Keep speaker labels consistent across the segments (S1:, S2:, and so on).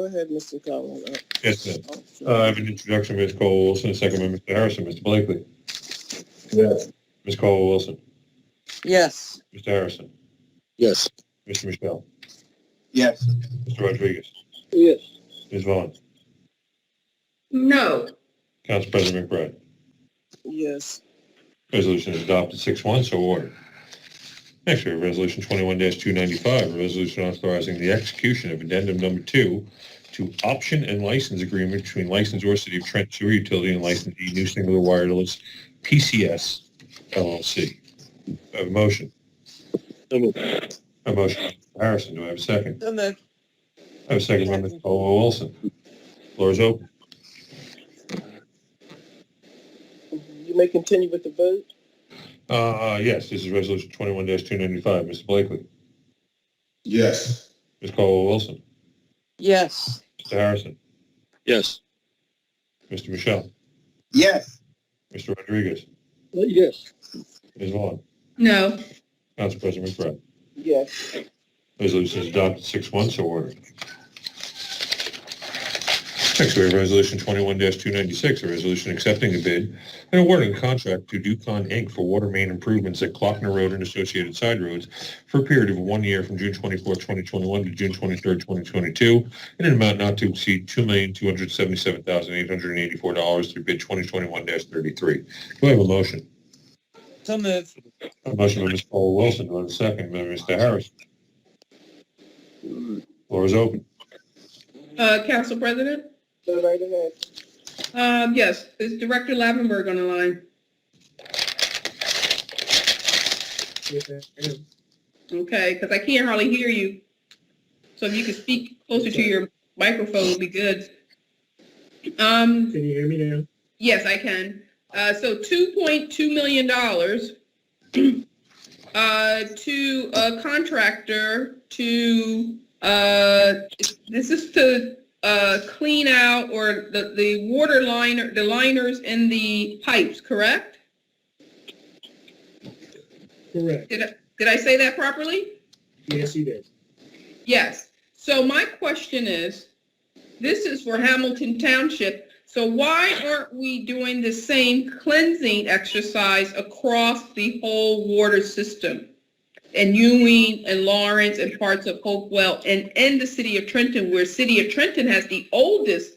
S1: Go ahead, Mr. Collins. Uh,
S2: Yes, ma'am.
S1: oh, sure.
S2: Uh, I have an introduction, Ms. Cole Wilson, a second by Mr. Harrison. Mr. Blakely.
S3: Yes.
S2: Ms. Cole Wilson.
S1: Yes,
S2: Mr. Harrison.
S3: Yes.
S2: Mr. Michelle.
S3: Yes.
S2: Mr. Rodriguez.
S3: Yes.
S2: Ms. Vaughn.
S4: no,
S2: Council President McBride.
S1: yes,
S2: Resolution is adopted six one, so ordered. Next, we have Resolution twenty-one two ninety-five, a resolution authorizing the execution of addendum number two to option and license agreement between licensor City of Trent Sewer Utility and licensee New Singular Wireless PCS LLC. Do I Have a motion.
S3: So moved.
S2: A motion, by Mr. Harrison, do I have a second?
S1: and then,
S2: I have a second by Mr. Colwell Wilson. Floor is open.
S1: you may continue with the vote.
S2: Uh, uh, yes, this is Resolution twenty-one two ninety-five, Mr. Blakely,
S3: Yes.
S2: Ms. Colwell Wilson,
S1: Yes,
S2: Mr. Harrison,
S3: Yes.
S2: Mr. Michelle.
S3: Yes.
S2: Mr. Rodriguez,
S1: Uh,
S3: Yes.
S2: Ms. Vaughn,
S4: no,
S2: Council President McBride.
S1: yes,
S2: Resolution is adopted six one, so ordered. Next, we have Resolution twenty-one two ninety-six, a resolution accepting a bid and awarding contract to Ducon Inc. for water main improvements at Clockner Road and associated side roads for a period of one year from June twenty-fourth, twenty twenty-one to June twenty-third, twenty twenty-two, in an amount not to exceed two million, two hundred seventy-seven thousand, eight hundred and eighty-four dollars through bid twenty twenty-one thirty-three. Do I have a motion?
S1: so move.
S2: A motion by Ms. Paul Wilson, do I have a second by Mr. Harrison? Floor is open.
S4: uh, Council President?
S1: Go right ahead.
S4: Um, yes, is Director Lavenberg on the line? Okay, because I can't hardly hear you. So if you could speak closer to your microphone would be good. Um,
S5: Can you hear me now?
S4: yes, I can. Uh, so two point two million dollars uh, to a contractor to, uh, this is to, uh, clean out or the, the water liner, the liners in the pipes, correct?
S5: Correct.
S4: Did I, did I say that properly?
S5: Yes, you did.
S4: Yes. So my question is, this is for Hamilton Township, so why aren't we doing the same cleansing exercise across the whole water system? And Ewing and Lawrence and parts of Hopewell and in the city of Trenton, where city of Trenton has the oldest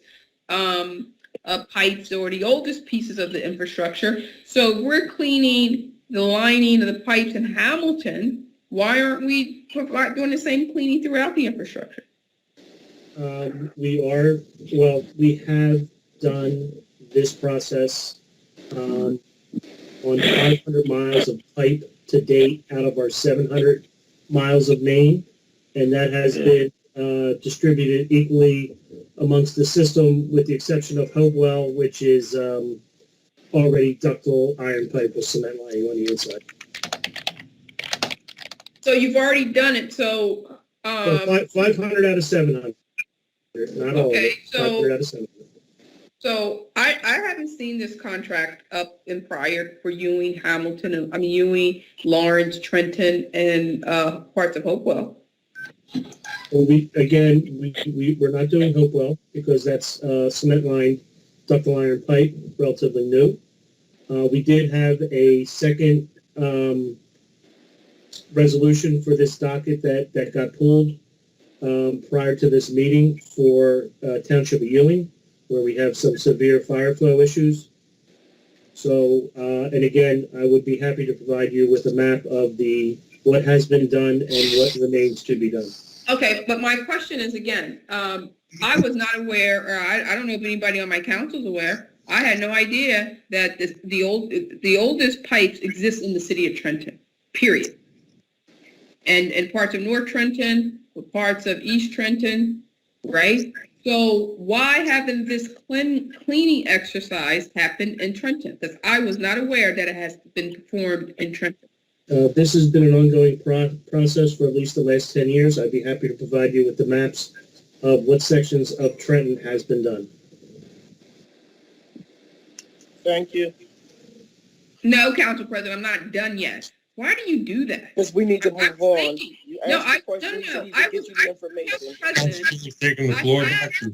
S4: um, uh, pipes or the oldest pieces of the infrastructure. So we're cleaning the lining of the pipes in Hamilton. Why aren't we provi- doing the same cleaning throughout the infrastructure?
S5: Um, we are, well, we have done this process, um, on five hundred miles of pipe to date out of our seven hundred miles of main. And that has been, uh, distributed equally amongst the system with the exception of Hopewell, which is, um, already ductile iron pipe with cement lining on the inside.
S4: So you've already done it, so, um,
S5: Five hundred out of seven hundred. Not all of
S4: okay,
S5: it. Five
S4: so.
S5: hundred out of seven hundred.
S4: So I, I haven't seen this contract up in prior for Ewing, Hamilton, and- I mean Ewing, Lawrence, Trenton, and uh, parts of Hopewell.
S5: Well, we, again, we, we, we're not doing Hopewell because that's, uh, cement lined ductile iron pipe, relatively new. Uh, we did have a second, um, resolution for this docket that, that got pulled, um, prior to this meeting for, uh, Township of Ewing, where we have some severe fire flow issues. So, uh, and again, I would be happy to provide you with a map of the, what has been done and what remains to be done.
S4: Okay, but my question is again, um, I was not aware, or I, I don't know if anybody on my council's aware. I had no idea that this, the old, the oldest pipes exist in the city of Trenton, period. And, and parts of North Trenton, parts of East Trenton, right? So why haven't this clean, cleaning exercise happened in Trenton? Because I was not aware that it has been performed in Trenton.
S5: Uh, This has been an ongoing pro- process for at least the last 10 years. I'd be happy to provide you with the maps of what sections of Trenton has been done.
S1: Thank you.
S4: No, Council President, I'm not done yet. Why do you do that?
S1: Because we need to
S4: I'm
S1: move on.
S4: thinking-
S1: You
S4: No,
S1: asked
S4: I-
S1: the question,
S4: no,
S1: so
S4: no,
S1: you
S4: I
S1: can get
S4: was-
S1: you
S4: I-
S1: the information.
S4: Mr. President,
S2: Taking the floor to action.